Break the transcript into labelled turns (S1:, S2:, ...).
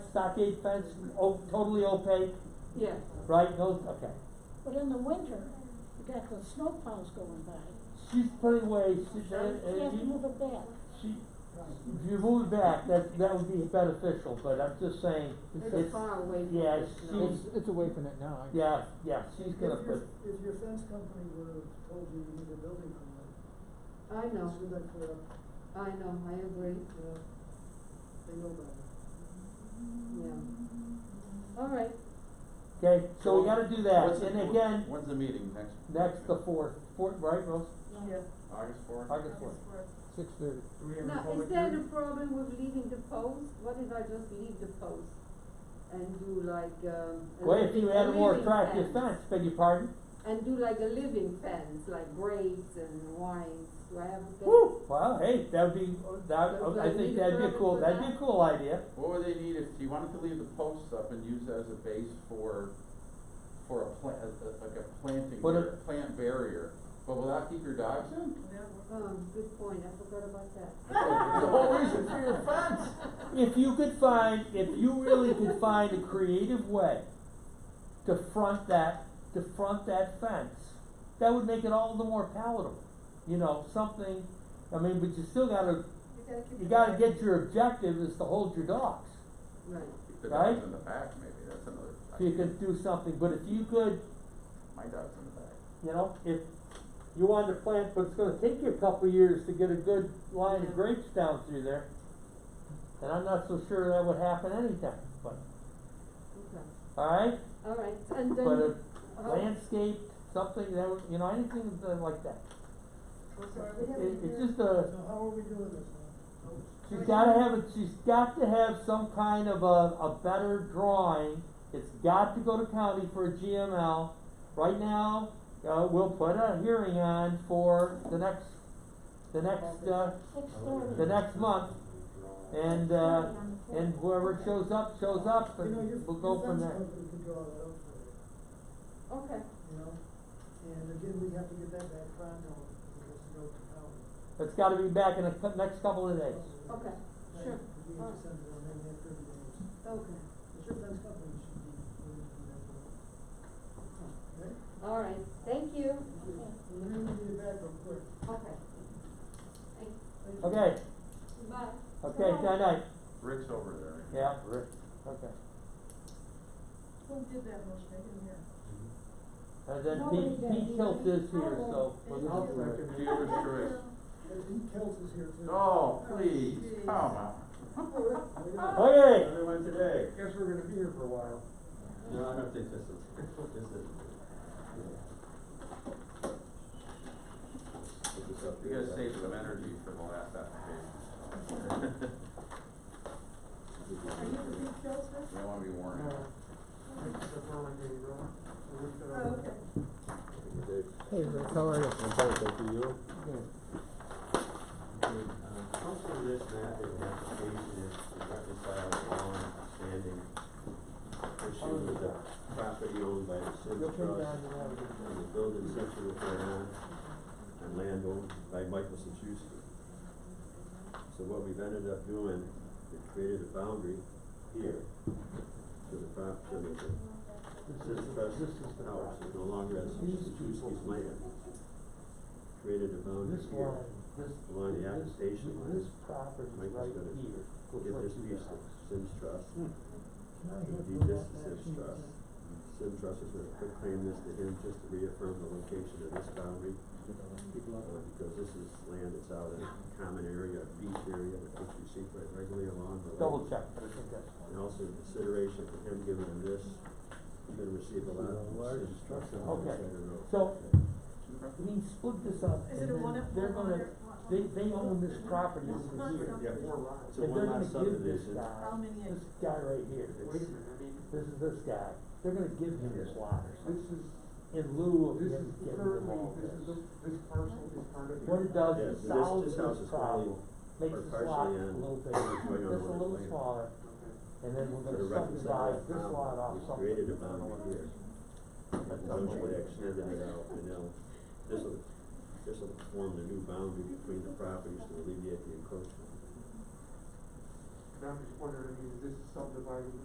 S1: stockade fence, o- totally opaque,
S2: Yes,
S1: right, no, okay.
S3: But in the winter, you got the snow plows going by,
S1: She's putting away, she's, uh,
S3: you have to move
S1: uh,
S3: it back.
S1: she, if you move it back, that, that would be beneficial, but I'm just saying,
S2: they're
S1: it's,
S2: far away from
S1: yeah,
S2: the
S1: it's-
S2: snow.
S4: It's, it's away from it now. I-
S1: yeah, yeah, she's
S5: If
S1: gonna
S5: your,
S1: put,
S5: if your fence company would have told you you need a building permit,
S2: I know,
S5: should that clear up,
S2: I know, I agree,
S5: yeah, they know better.
S2: yeah. All right,
S1: okay, so we gotta do that,
S6: What's the-
S1: and again,
S6: When's the meeting, next?
S1: next the fourth, fourth, right, Rose?
S6: August fourth?
S1: August fourth.
S4: Six thirty.
S2: now, is there a problem with leaving the post? What if I just leave the post? And do like, um. a
S1: Well, if you
S2: living- a
S1: had a more
S2: living
S1: attractive fence, beg your pardon,
S2: And do like a living fence, like grapes and wines, do I have a fence?
S1: woo, well, hey, that'd be, that,
S2: Does
S1: I
S2: that
S1: think
S2: need a
S1: that'd be a
S2: permit
S1: cool,
S2: for
S1: that'd be a
S2: that?
S1: cool idea,
S6: What would they need if you wanted to leave the posts up and use it as a base for, for a plant, like a planting,
S1: What
S6: bar- plant barrier, but will that keep your dogs in?
S2: Oh, good point, I forgot about that.
S6: That's like The whole reason for your fence.
S1: If you could find, if you really could find a creative way to front that, to front that fence, that would make it all the more palatable. You know, something, I mean, but you still gotta, you gotta get your objective is to hold your dogs.
S2: Right,
S6: The
S1: Right?
S6: dog's in the back, maybe, that's another.
S1: If you could do something, but if you could,
S6: My dog's in the back.
S1: you know, if you wanted to plant, but it's gonna take you a couple of years to get a good line of
S2: Yeah.
S1: grapes down through there. And I'm not so sure that would happen anytime, but,
S2: okay,
S1: alright?
S2: all right, and then.
S1: But a
S5: uh-huh.
S2: how-
S1: landscape, something that, would- you know, anything that- like that. It, it's just
S5: So
S1: a,
S5: how are we doing this now? Oh,
S1: she's gotta have, a- she's got to have some kind of a, a better drawing. It's got to go to county for a GML. Right now, uh, we'll put a hearing on for the next, the next, uh,
S3: Six thirty.
S1: the next month. And, uh, and whoever shows up, shows up,
S5: You know, your,
S1: and we'll go
S5: your
S1: from
S5: fence
S1: there.
S5: company could draw that up for you,
S2: Okay,
S5: you know? And again, we have to get that back pronto, because it goes to county.
S1: It's gotta be back in the cou- next couple of days.
S5: Right,
S2: okay, sure.
S5: We have to send it in, maybe after the days.
S2: okay,
S5: But your fence company should be, willing to do that for you, okay?
S2: all right, thank you.
S5: We're gonna need it back real quick.
S2: Okay. Thank-
S5: Thank you.
S1: Okay,
S2: Bye.
S1: okay, night night.
S6: Rick's over there.
S1: Yeah, Rick, okay.
S7: Who did that motion? I didn't hear.
S1: And then
S3: Nobody
S1: Pete,
S3: did.
S1: Pete Tilt is here, so.
S3: I will.
S1: we'll
S5: I'll
S1: do it.
S6: Dealer's choice.
S5: And he kills us here too.
S6: Oh, please,
S7: Jeez.
S6: come on.
S1: Okay,
S8: Everyone today.
S5: Guess we're gonna be here for a while.
S8: No, I don't think this is, this is. Put this up
S6: We
S8: here.
S6: gotta save some energy for the last application. so.
S7: Are you the big Kelsey?
S6: We don't wanna be worn out.
S7: Oh, okay.
S8: Dave.
S4: Hey, Rick, how are you?
S8: I'm sorry, thank you. You?
S4: Good.
S8: Good. Um, Comes from this map, that the application is to reconcile a long-standing issue with the property owned by the Sims
S4: You'll
S8: Trust.
S4: turn down your light.
S8: And the building section of their own, and land owned by Michael Sechuski. So what we've ended up doing, we created a boundary here to the prop, to the Sims Trust house, is no longer as Sechuski's land. Created a boundary
S1: this
S8: here.
S1: line, this,
S8: Along the attestation line.
S1: this, this property
S8: Mike
S1: right
S8: was gonna
S1: here. goes
S8: Get
S1: right
S8: this
S1: through
S8: piece
S1: that.
S8: of Sims Trust. Indeed, this is Sims Trust. Sims Trust is gonna quit claim this to him just to reaffirm the location of this boundary, uh, because this is land that's out in a common area, a beach area, which you see quite regularly along the lake.
S1: Double check, but I think that's.
S8: And also in consideration for him giving him this, he's gonna receive a lot from Sims Trust on the
S1: Okay.
S8: other side of the road.
S1: So, he split this up
S7: Is
S1: and
S7: it a one
S1: then
S7: up,
S1: they're
S7: one
S1: gonna,
S7: under, one
S1: they,
S7: under?
S1: they own this property over
S7: Not
S1: here.
S7: something.
S8: Yeah.
S1: And
S8: It's a
S1: they're
S8: one-lot
S1: gonna give this
S8: subdivision.
S1: guy,
S7: How many
S1: this
S7: acres?
S1: guy right here, this, this is this guy, they're gonna give him this lot or something. In lieu of
S9: This
S1: him
S9: is
S1: getting rid of
S9: currently,
S1: all
S9: this is,
S1: this.
S9: the- this parcel is part of.
S1: What it does
S8: Yeah,
S1: is
S8: so
S1: solves
S8: this,
S1: this
S8: this house is
S1: problem,
S8: probably
S1: makes
S8: or
S1: this
S8: partially
S1: lot a
S8: on-
S1: little bigger,
S8: going on
S1: just a
S8: with
S1: little
S8: land.
S1: smaller. And then we're
S8: Sort of
S1: gonna
S8: reconcile
S1: subdivide
S8: that
S1: this
S8: boundary.
S1: lot off
S8: We
S1: something.
S8: created a boundary here. And so she would extend it out, and now, this'll, this'll form the new boundary between the properties to alleviate the encroachment.
S9: And I'm just wondering, I mean, is this subdividing